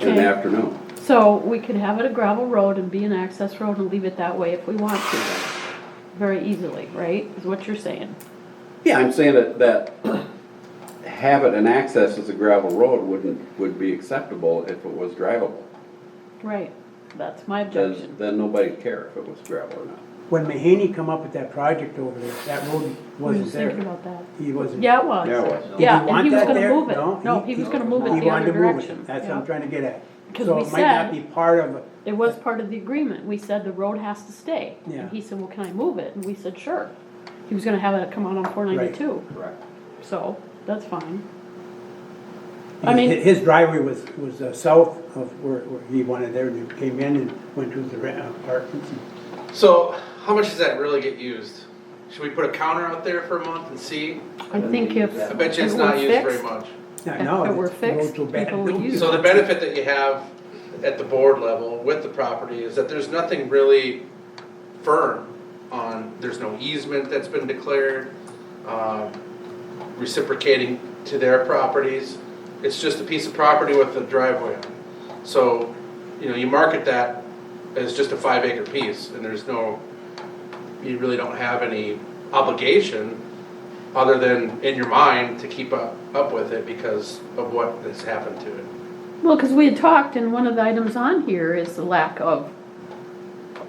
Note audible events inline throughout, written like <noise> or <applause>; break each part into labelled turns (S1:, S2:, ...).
S1: in
S2: Okay.
S1: the afternoon.
S2: So we could have it a gravel road and be an access road and leave it that way if we want to. Very easily, right, is what you're saying.
S1: Yeah, I'm saying that, that have it and access as a gravel road wouldn't, would be acceptable if it was drivable.
S2: Right, that's my
S1: Then,
S2: objection.
S1: then nobody'd care if it was gravel or not.
S3: When Mahaney come up with that project over there, that road
S2: We were just
S3: wasn't
S2: thinking
S3: there.
S2: about that.
S3: He wasn't.
S2: Yeah, it was.
S1: Yeah, it was.
S2: Yeah, and
S3: Did
S2: he
S3: want
S2: was
S3: that
S2: gonna
S3: there?
S2: move it. No, he was gonna move it
S3: he
S2: the
S3: wanted
S2: other
S3: to move it.
S2: direction.
S3: That's what
S2: Yeah.
S3: I'm trying to get at.
S2: 'Cause
S3: So
S2: we
S3: it might
S2: said-
S3: not be part of, a-
S2: It was part of the agreement. We said the road has to stay.
S3: Yeah.
S2: And he said, well, can I move it? And we said, sure. He was gonna have it come out on four ninety-two,
S1: Correct.
S2: so that's fine. I mean-
S3: his his driveway was, was uh, south of where, where he wanted there, and he came in and went to the re- uh, apartments. and-
S4: So, how much does that really get used? Should we put a counter out there for a month and see?
S2: I think if.
S4: I bet you it's
S2: it
S4: not
S2: were
S4: used very
S2: fixed,
S4: much.
S3: Not
S2: If
S3: now,
S2: it were
S3: the road's
S2: fixed,
S3: so bad.
S2: people would use
S4: So the benefit that you have at the board level with the property is that there's nothing really firm on, there's no easement that's been declared, um, reciprocating to their properties. It's just a piece of property with a driveway on it. So, you know, you market that as just a five acre piece and there's no, you really don't have any obligation other than in your mind to keep up, up with it because of what has happened to it.
S2: Well, because we had talked, and one of the items on here is the lack of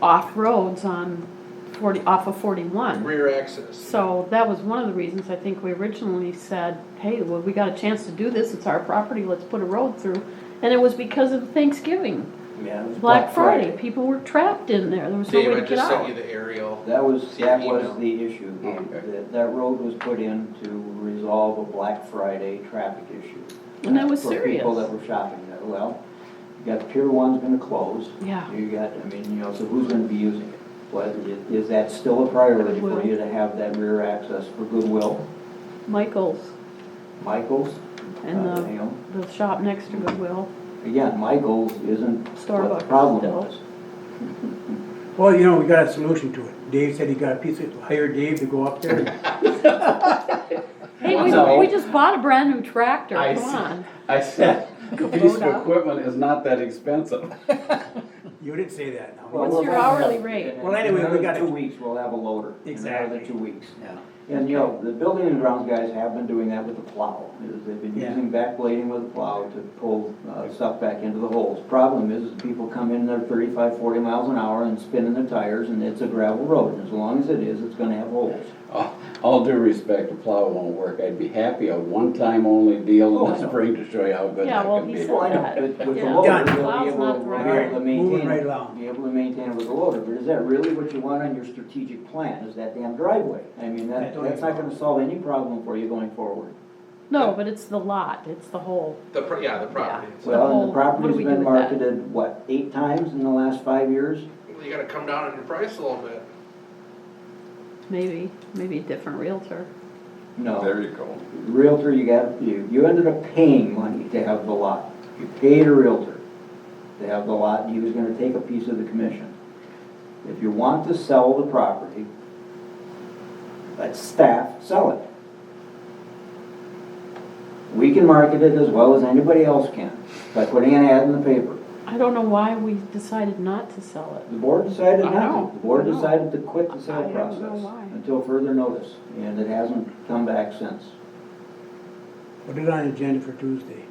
S2: off-roads on forty, off of forty-one.
S4: Rear access.
S2: So that was one of the reasons I think we originally said, hey, well, we got a chance to do this, it's our property, let's put a road through. And it was because of Thanksgiving,
S5: Yeah, it was
S2: Black Friday, people were trapped in there, there was no
S4: Dave,
S2: way
S4: I
S2: to get
S4: just sent you
S2: out.
S4: the aerial.
S5: That was,
S4: See
S5: that
S4: the
S5: was
S4: email.
S5: the issue.
S1: Oh, okay.
S5: That, that road was put in to resolve a Black Friday traffic issue.
S2: And that was
S5: For people
S2: serious.
S5: that were shopping there. Well, you got Pier One's gonna close.
S2: Yeah.
S5: You got, I mean, you know, so who's gonna be using it? Well, i- is that still a priority for
S2: Goodwill.
S5: you to have that rear access for Goodwill,
S2: Michael's
S5: Michael's?
S2: and
S5: uh, you
S2: the,
S5: know?
S2: the shop next to Goodwill,
S5: Again, Michael's isn't what
S2: Starbucks
S5: the problem
S2: still.
S5: was.
S3: Well, you know, we got a solution to it. Dave said he got a piece of, hired Dave to go up there.
S2: hey, we,
S1: No.
S2: we just bought a brand new tractor,
S1: I
S2: come
S1: see.
S2: on.
S1: I said, a <laughs> piece of
S2: Kubota.
S1: equipment is not that expensive.
S3: <laughs> You didn't say that, no.
S2: What's your hourly rate?
S3: Well, anyway, we
S5: Another
S3: gotta-
S5: Two weeks, we'll have a loader.
S3: Exactly.
S5: Another two weeks.
S1: Yeah.
S5: And, you know, the building and grounds guys have been doing that with the plow. is They've been
S3: Yeah.
S5: using backblading with the plow to pull uh, stuff back into the holes. Problem is, is people come in there 35, 40 miles an hour and spinning their tires, and it's a gravel road. And as long as it is, it's gonna have holes.
S1: All- All due respect, the plow won't work. I'd be happy a one-time only deal
S5: Oh,
S1: in
S5: I
S1: the
S5: know.
S1: spring to show you how good
S2: Yeah,
S1: that
S2: well,
S1: can
S2: he
S1: be.
S2: said-
S5: Well, I know, but with the
S2: Yeah.
S5: loader,
S3: Done.
S5: they'll be
S2: Plow's
S5: able,
S2: not the
S5: we'll
S2: right
S5: be
S3: way.
S5: able to
S3: Moving right
S5: maintain,
S3: along.
S5: be able to maintain it with the loader, but is that really what you want on your strategic plan, is that damn driveway? I mean,
S3: I
S5: that,
S3: don't
S5: that's not
S3: know.
S5: gonna solve any problem for you going forward.
S2: No, but it's the lot, it's the whole,
S4: The, pro- yeah, the property.
S2: Yeah.
S4: So
S5: Well, and
S2: whole-
S5: the
S2: what do we do
S5: property's been
S2: with that?
S5: marketed, what, eight times in the last five years?
S4: You gotta come down on your price a little bit.
S2: maybe, maybe a different realtor.
S5: No.
S1: There you go.
S5: Realtor, you got, you, you ended up paying money to have the lot. You paid a realtor to have the lot, and he was gonna take a piece of the commission. If you want to sell the property, let staff sell it. We can market it as well as anybody else can by putting an ad in the paper.
S2: I don't know why we decided not to sell it.
S5: The board decided
S2: I know,
S5: not to. The board
S2: I know.
S5: decided to quit the
S2: I
S5: sale
S2: don't know
S5: process
S2: why.
S5: until further notice, and it hasn't come back since.
S3: Put it on agenda for Tuesday.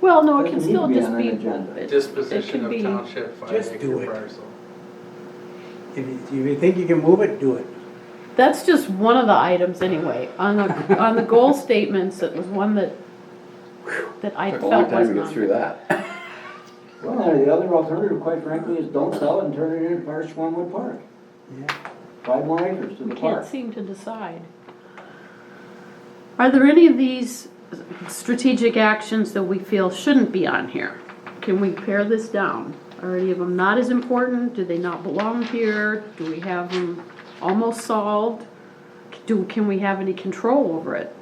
S2: Well, no, it can
S5: Doesn't need to
S2: still
S5: be
S2: just
S5: on
S2: be.
S5: an agenda.
S2: it-
S4: Disposition
S2: it could
S4: of
S2: be-
S4: township five
S3: Just do
S4: acre
S3: it.
S4: parcel.
S3: If you, if you think you can move it, do it.
S2: That's just one of the items anyway, on the, on the goal statements, it was one that, that I
S1: Took a long
S2: felt
S1: time
S2: was
S1: to get
S2: not.
S1: through that.
S5: Well, and the other alternative, quite frankly, is don't sell it and turn it into Park Swanwood Park.
S3: Yeah.
S5: Five more acres to
S2: We
S5: the
S2: can't
S5: park.
S2: seem to decide. Are there any of these strategic actions that we feel shouldn't be on here? Can we pare this down? Are any of them not as important? Do they not belong here? Do we have them almost solved? Do, can we have any control over it?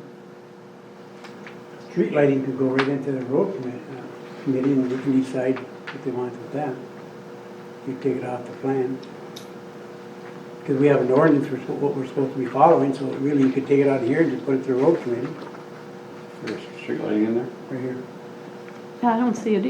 S3: Street lighting could go right into the road committee, uh, committee and they can decide what they want with that. You take it off the plan. Because we have an ordinance for what we're supposed to be following, so really you could take it out of here and just put it to the road committee,
S1: There's street lighting in there?
S3: right here.
S2: I don't see it